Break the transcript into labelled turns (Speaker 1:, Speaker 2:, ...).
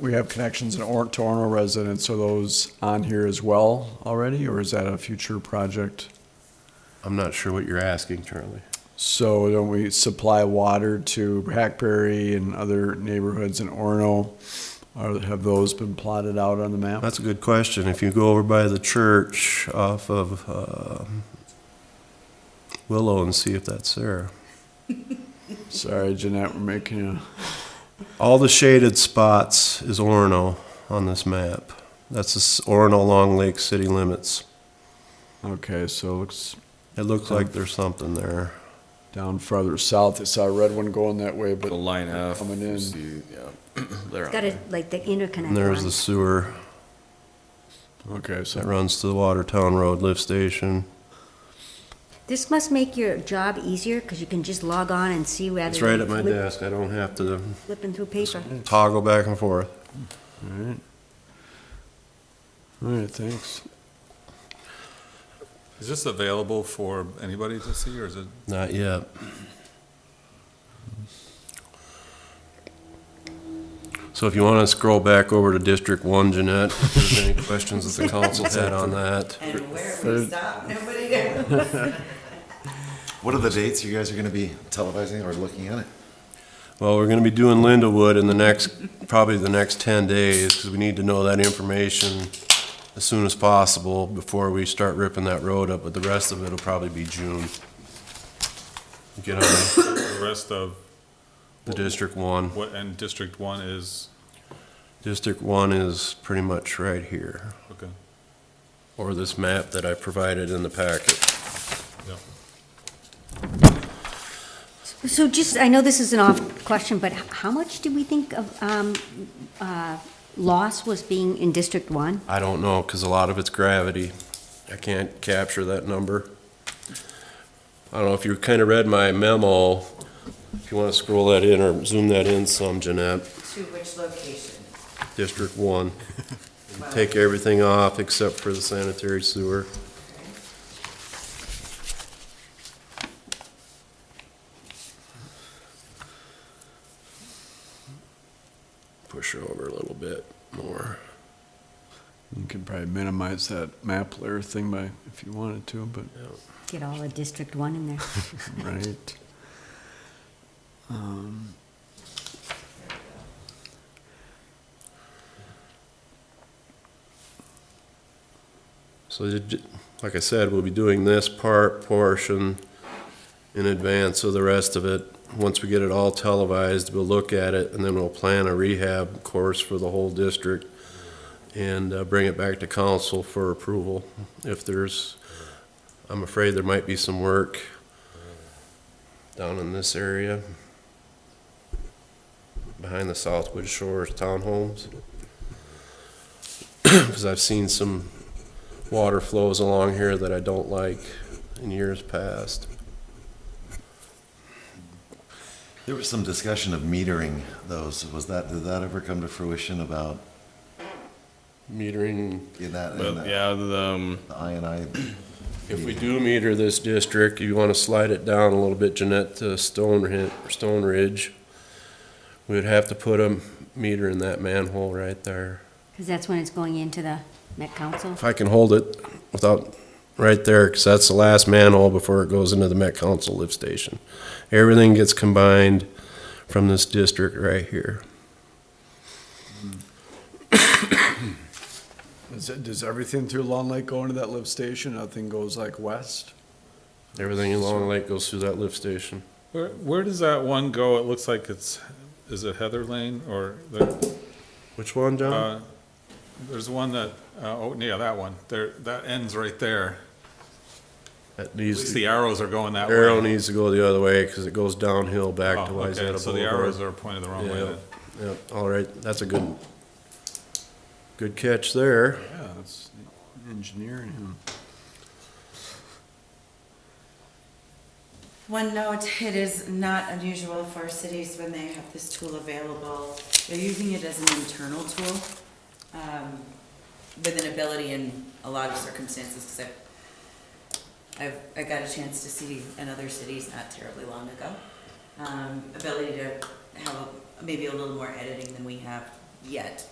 Speaker 1: We have connections in Or- to Orno residents, are those on here as well already, or is that a future project?
Speaker 2: I'm not sure what you're asking, Charlie.
Speaker 1: So don't we supply water to Hackberry and other neighborhoods in Orno? Are, have those been plotted out on the map?
Speaker 2: That's a good question. If you go over by the church off of um, Willow and see if that's there.
Speaker 1: Sorry, Jeanette, we're making a,
Speaker 2: All the shaded spots is Orono on this map. That's this Orono along Lake City limits.
Speaker 1: okay, so it looks
Speaker 2: It looks like there's something there.
Speaker 1: down farther south. I saw a red one going that way, but
Speaker 3: The line F.
Speaker 1: Coming in.
Speaker 3: See, yeah. They're on
Speaker 4: Got
Speaker 3: there.
Speaker 4: it, like the interconnect
Speaker 2: And there's
Speaker 4: line.
Speaker 2: the sewer
Speaker 1: okay,
Speaker 2: that
Speaker 1: so
Speaker 2: runs to the Watertown Road lift station.
Speaker 4: This must make your job easier, because you can just log on and see rather than.
Speaker 2: It's right at my
Speaker 4: flip-
Speaker 2: desk. I don't have to
Speaker 4: Flipping through paper.
Speaker 2: toggle back and forth.
Speaker 1: all right. All right, thanks.
Speaker 5: Is this available for anybody to see, or is it,
Speaker 2: Not yet. So if you want to scroll back over to District One, Jeanette, if there's any questions that the council had on that.
Speaker 6: And where we stop, nobody knows.
Speaker 7: What are the dates you guys are gonna be televising or looking at it?
Speaker 2: Well, we're going to be doing Lindawood in the next, probably the next ten days, because we need to know that information as soon as possible before we start ripping that road up, but the rest of it'll probably be June. Get on
Speaker 5: the rest of,
Speaker 2: the District One.
Speaker 5: what, and District One is,
Speaker 2: District One is pretty much right here.
Speaker 5: okay,
Speaker 2: or this map that I provided in the packet.
Speaker 5: yeah.
Speaker 4: So just, I know this is an off question, but h- how much do we think of, um, uh, loss was being in District One?
Speaker 2: I don't know, because a lot of it's gravity. I can't capture that number. I don't know if you kind of read my memo, if you want to scroll that in or zoom that in some, Jeanette,
Speaker 6: To which location?
Speaker 2: District One. Take everything off except for the sanitary sewer. Push her over a little bit more.
Speaker 1: You could probably minimize that map layer thing by, if you wanted to, but,
Speaker 4: Get all of District One in there.
Speaker 1: right. Um,
Speaker 2: So, you ju- like I said, we'll be doing this part, portion in advance of the rest of it. Once we get it all televised, we'll look at it, and then we'll plan a rehab course for the whole district and uh, bring it back to council for approval. If there's, I'm afraid there might be some work down in this area, behind the Southwood Shores townhomes. Because I've seen some water flows along here that I don't like in years past.
Speaker 7: There was some discussion of metering those. Was that, did that ever come to fruition about
Speaker 2: Metering,
Speaker 7: in that, in
Speaker 3: But,
Speaker 7: that-
Speaker 3: yeah, the, um,
Speaker 7: the I and I?
Speaker 2: if we do meter this district, you want to slide it down a little bit, Jeanette, to Stone, Hi- Stone Ridge. We'd have to put a meter in that manhole right there.
Speaker 4: Because that's when it's going into the Met Council.
Speaker 2: If I can hold it without, right there, because that's the last manhole before it goes into the Met Council lift station. Everything gets combined from this district right here.
Speaker 1: Is it, does everything through Long Lake go into that lift station? Nothing goes like west?
Speaker 2: Everything along Lake goes through that lift station.
Speaker 5: Where, where does that one go? It looks like it's, is it Heather Lane, or, the-
Speaker 2: Which one, John?
Speaker 5: uh, there's one that, uh, oh, yeah, that one, there, that ends right there.
Speaker 2: That
Speaker 5: At
Speaker 2: needs
Speaker 5: least
Speaker 2: to-
Speaker 5: the arrows are going that way.
Speaker 2: Arrow needs to go the other way because it goes downhill
Speaker 5: Oh,
Speaker 2: back to Wayzata
Speaker 5: okay,
Speaker 2: Boulevard.
Speaker 5: So the arrows are pointed the wrong way
Speaker 2: Yeah.
Speaker 5: then.
Speaker 2: Yep, all right, that's a good, good catch there.
Speaker 1: Yeah, that's engineering him.
Speaker 6: One note, it is not unusual for cities when they have this tool available, they're using it as an internal tool um, with an ability in a lot of circumstances, because I've, I've, I got a chance to see in other cities not terribly long ago, um, ability to have a- maybe a little more editing than we have yet,